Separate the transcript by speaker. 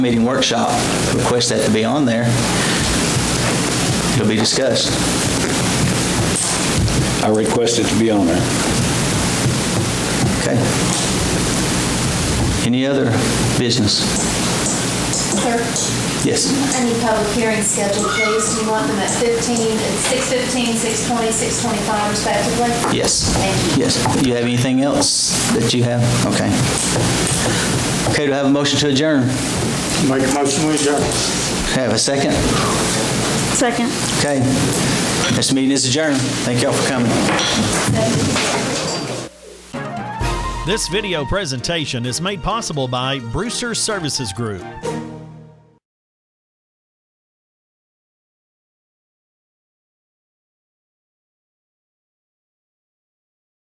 Speaker 1: meeting workshop, request that to be on there. It'll be discussed.
Speaker 2: I request it to be on there.
Speaker 1: Okay. Any other business?
Speaker 3: Sir,
Speaker 1: Yes.
Speaker 3: I need public hearings scheduled, please. Do you want them at 15, at 6:15, 6:20, 6:25 respectively?
Speaker 1: Yes.
Speaker 3: Thank you.
Speaker 1: Yes. Do you have anything else that you have? Okay. Okay, do I have a motion to adjourn?
Speaker 4: Make a motion, we adjourn.
Speaker 1: Have a second?
Speaker 5: Second.
Speaker 1: Okay. This meeting is adjourned. Thank y'all for coming.
Speaker 6: This video presentation is made possible by Brewster Services Group.